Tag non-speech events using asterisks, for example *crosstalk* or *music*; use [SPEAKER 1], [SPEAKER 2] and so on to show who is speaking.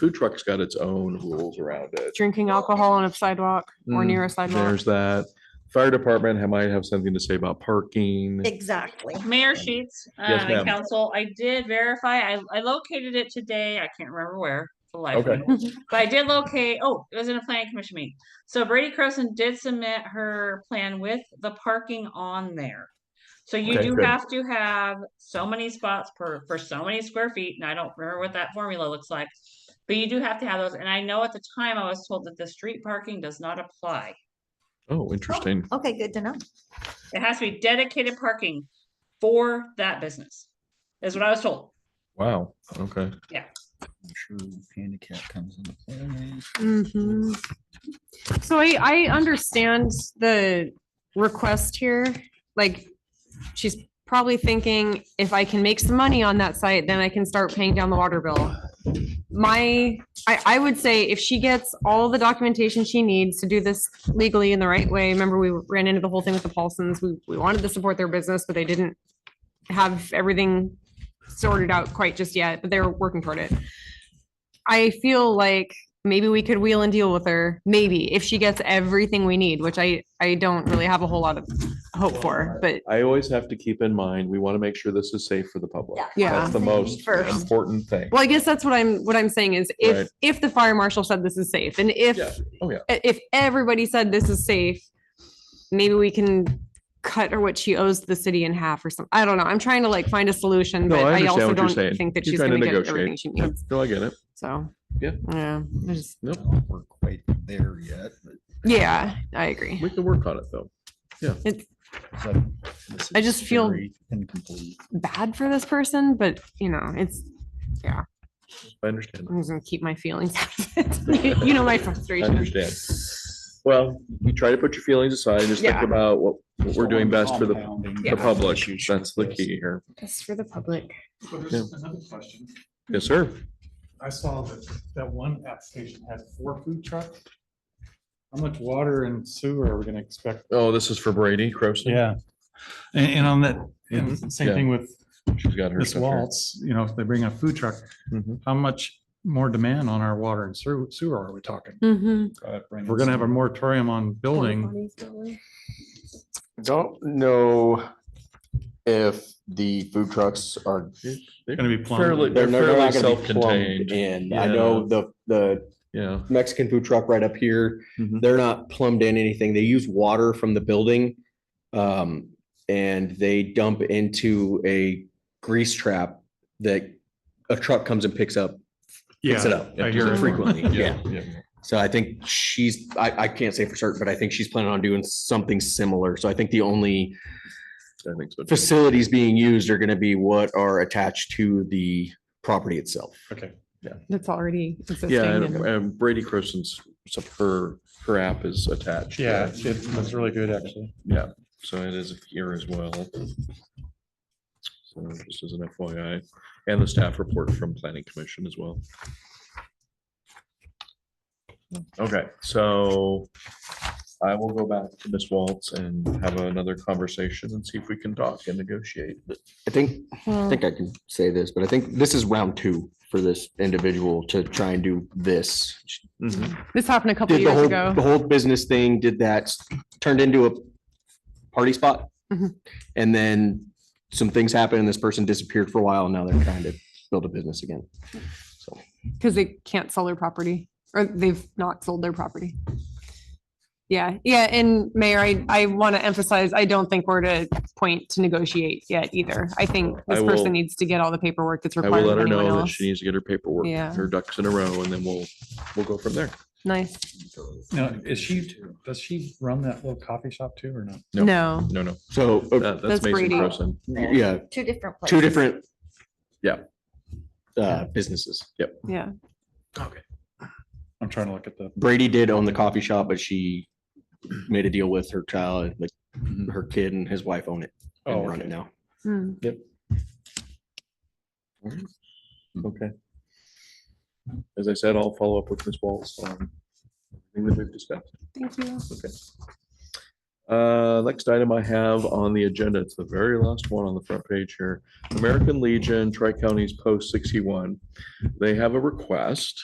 [SPEAKER 1] food truck's got its own rules around it.
[SPEAKER 2] Drinking alcohol on a sidewalk or near a sidewalk.
[SPEAKER 1] There's that. Fire department ha- might have something to say about parking.
[SPEAKER 3] Exactly.
[SPEAKER 4] Mayor Sheets,
[SPEAKER 1] Yes,
[SPEAKER 4] uh, and
[SPEAKER 1] ma'am.
[SPEAKER 4] council, I did verify, I, I located it today, I can't remember where. for the life of
[SPEAKER 1] Okay.
[SPEAKER 4] me. But I did locate, oh, it was in a planning commission meeting. So Brady Croson did submit her plan with the parking on there. So you
[SPEAKER 1] Okay,
[SPEAKER 4] do
[SPEAKER 1] good.
[SPEAKER 4] have to have so many spots per, for so many square feet, and I don't remember what that formula looks like. But you do have to have those, and I know at the time I was told that the street parking does not apply.
[SPEAKER 1] Oh, interesting.
[SPEAKER 3] Okay, good to know.
[SPEAKER 4] It has to be dedicated parking for that business, is what I was told.
[SPEAKER 1] Wow. Okay.
[SPEAKER 5] I'm sure handicap comes into play.
[SPEAKER 2] Mhm. So I, I understand the request here, like, she's probably thinking, if I can make some money on that site, then I can start paying down the water bill. My, I, I would say if she gets all the documentation she needs to do this legally in the right way, remember we ran into the whole thing with the Paulsons, we, we wanted to support their business, but they didn't have everything sorted out quite just yet, but they're working toward it. I feel like maybe we could wheel and deal with her, maybe, if she gets everything we need, which I, I don't really have a whole lot of hope for, but
[SPEAKER 1] I always have to keep in mind, we want to make sure this is safe for the public.
[SPEAKER 2] Yeah.
[SPEAKER 1] That's the most
[SPEAKER 3] First.
[SPEAKER 1] important thing.
[SPEAKER 2] Well, I guess that's what I'm, what I'm saying is
[SPEAKER 1] Right.
[SPEAKER 2] if, if the fire marshal said this is safe and if,
[SPEAKER 1] Yeah. Oh, yeah.
[SPEAKER 2] i- if everybody said this is safe, maybe we can cut her what she owes the city in half or something. I don't know. I'm trying to like find a solution,
[SPEAKER 1] No,
[SPEAKER 2] but
[SPEAKER 1] I
[SPEAKER 2] I
[SPEAKER 1] understand what
[SPEAKER 2] also
[SPEAKER 1] you're
[SPEAKER 2] don't
[SPEAKER 1] saying.
[SPEAKER 2] think that
[SPEAKER 1] You're
[SPEAKER 2] she's
[SPEAKER 1] trying to
[SPEAKER 2] gonna get
[SPEAKER 1] negotiate.
[SPEAKER 2] everything she
[SPEAKER 1] Yeah.
[SPEAKER 2] needs.
[SPEAKER 1] No, I get it.
[SPEAKER 2] So.
[SPEAKER 1] Yeah.
[SPEAKER 2] Yeah, I just-
[SPEAKER 1] Nope.
[SPEAKER 5] We're quite there yet, but.
[SPEAKER 2] yeah, I agree.
[SPEAKER 1] We can work on it though.
[SPEAKER 2] It's
[SPEAKER 5] it's like, this
[SPEAKER 2] I
[SPEAKER 5] is
[SPEAKER 2] just feel-
[SPEAKER 5] very Incomplete.
[SPEAKER 2] bad for this person, but you know, it's,
[SPEAKER 1] I understand.
[SPEAKER 2] I'm just gonna keep my feelings. *laughs* out of it. You know, my
[SPEAKER 1] I
[SPEAKER 2] *laughs* frustration.
[SPEAKER 1] understand. Well, you try to put your feelings aside and just think
[SPEAKER 2] Yeah.
[SPEAKER 1] about what, what we're doing best for the,
[SPEAKER 5] Compounding
[SPEAKER 1] the
[SPEAKER 5] type
[SPEAKER 1] public.
[SPEAKER 5] issues
[SPEAKER 1] That's the
[SPEAKER 5] with
[SPEAKER 1] key here.
[SPEAKER 2] It's for the public.
[SPEAKER 6] Well, there's another question.
[SPEAKER 1] Yes, sir.
[SPEAKER 6] I saw that, that one application had four food trucks. How much water and sewer are we gonna expect?
[SPEAKER 1] Oh, this is for Brady Croson.
[SPEAKER 6] Yeah. And, and on that, and
[SPEAKER 1] Yeah.
[SPEAKER 6] same thing with
[SPEAKER 1] She's got her
[SPEAKER 6] this
[SPEAKER 1] stuff here.
[SPEAKER 6] Waltz, you know, if they bring a food truck,
[SPEAKER 1] Mhm.
[SPEAKER 6] how much more demand on our water and sewer, sewer are we talking?
[SPEAKER 2] Mm-hmm.
[SPEAKER 5] product
[SPEAKER 6] If
[SPEAKER 5] brand
[SPEAKER 6] We're gonna have a
[SPEAKER 5] stuff.
[SPEAKER 6] moratorium on building.
[SPEAKER 7] Don't know if the food trucks are,
[SPEAKER 6] Gonna be plumbed.
[SPEAKER 1] Fairly-
[SPEAKER 7] they're
[SPEAKER 1] They're
[SPEAKER 7] they're not
[SPEAKER 1] fairly
[SPEAKER 7] gonna be
[SPEAKER 1] self-contained.
[SPEAKER 7] plumbed in. I know the, the
[SPEAKER 1] Yeah.
[SPEAKER 7] Mexican food truck right up here,
[SPEAKER 1] Mhm.
[SPEAKER 7] they're not plumbed in anything. They use water from the building. Um, and they dump into a grease trap that a truck comes and picks up, picks it
[SPEAKER 6] Yeah,
[SPEAKER 7] up
[SPEAKER 6] I hear it.
[SPEAKER 7] frequently. Yeah.
[SPEAKER 1] Yeah.
[SPEAKER 7] So I think she's, I, I can't say for certain, but I think she's planning on doing something similar. So I think the only
[SPEAKER 1] I think so. too.
[SPEAKER 7] facilities being used are gonna be what are attached to the property itself.
[SPEAKER 6] okay.
[SPEAKER 2] That's already existing.
[SPEAKER 1] Yeah,
[SPEAKER 2] and-
[SPEAKER 1] and- and Brady Croson's, so her, her app is attached. to
[SPEAKER 6] Yeah,
[SPEAKER 1] it.
[SPEAKER 6] it was really good, actually.
[SPEAKER 1] Yeah, so it is here as well. So Just as an FYI, and the staff report from planning commission as well. Okay, so I will go back to Ms. Waltz and have another conversation and see if we can talk and negotiate.
[SPEAKER 7] I think, I think I can say this, but I think this is round two for this individual to try and do this. She
[SPEAKER 2] This happened a couple
[SPEAKER 7] Did the
[SPEAKER 2] years
[SPEAKER 7] whole,
[SPEAKER 2] ago.
[SPEAKER 7] the whole business thing, did that, turned into a party spot.
[SPEAKER 2] Mhm.
[SPEAKER 7] And then some things happened and this person disappeared for a while and now they're trying to build a business again. So.
[SPEAKER 2] Because they can't sell their property or they've not sold their property. Yeah, yeah, and Mayor, I, I want to emphasize, I don't think we're at a point to negotiate yet either. I think
[SPEAKER 1] I
[SPEAKER 2] this person
[SPEAKER 1] will-
[SPEAKER 2] needs to get all the paperwork that's
[SPEAKER 1] I will
[SPEAKER 2] required
[SPEAKER 1] let
[SPEAKER 2] of
[SPEAKER 1] her
[SPEAKER 2] anyone
[SPEAKER 1] know that
[SPEAKER 2] else.
[SPEAKER 1] she needs to get her paperwork,
[SPEAKER 2] Yeah.
[SPEAKER 1] her ducks in a row, and then we'll, we'll go from there.
[SPEAKER 2] Nice.
[SPEAKER 6] Now, is she, does she run that little coffee shop too or not?
[SPEAKER 1] No.
[SPEAKER 2] No,
[SPEAKER 1] No, no,
[SPEAKER 7] So, uh,
[SPEAKER 1] that- that's
[SPEAKER 2] That's
[SPEAKER 1] Mason
[SPEAKER 2] Brady.
[SPEAKER 1] Croson.
[SPEAKER 7] yeah,
[SPEAKER 3] Two different.
[SPEAKER 7] two
[SPEAKER 3] places.
[SPEAKER 7] different.
[SPEAKER 1] Yeah.
[SPEAKER 7] Uh, businesses.
[SPEAKER 2] yeah.
[SPEAKER 6] I'm trying to look at the,
[SPEAKER 7] Brady did own the coffee shop, but she made a deal with her child, like her kid and his wife own it
[SPEAKER 6] Mm-hmm. oh,
[SPEAKER 7] and run
[SPEAKER 6] okay.
[SPEAKER 7] it now.
[SPEAKER 2] Hmm.
[SPEAKER 1] Okay. As I said, I'll follow up with Ms. Walls on everything that we've discussed.
[SPEAKER 2] Thank you.
[SPEAKER 1] Okay. Uh, next item I have on the agenda, it's the very last one on the front page here. American Legion, Tri-Counties Post sixty-one. They have a request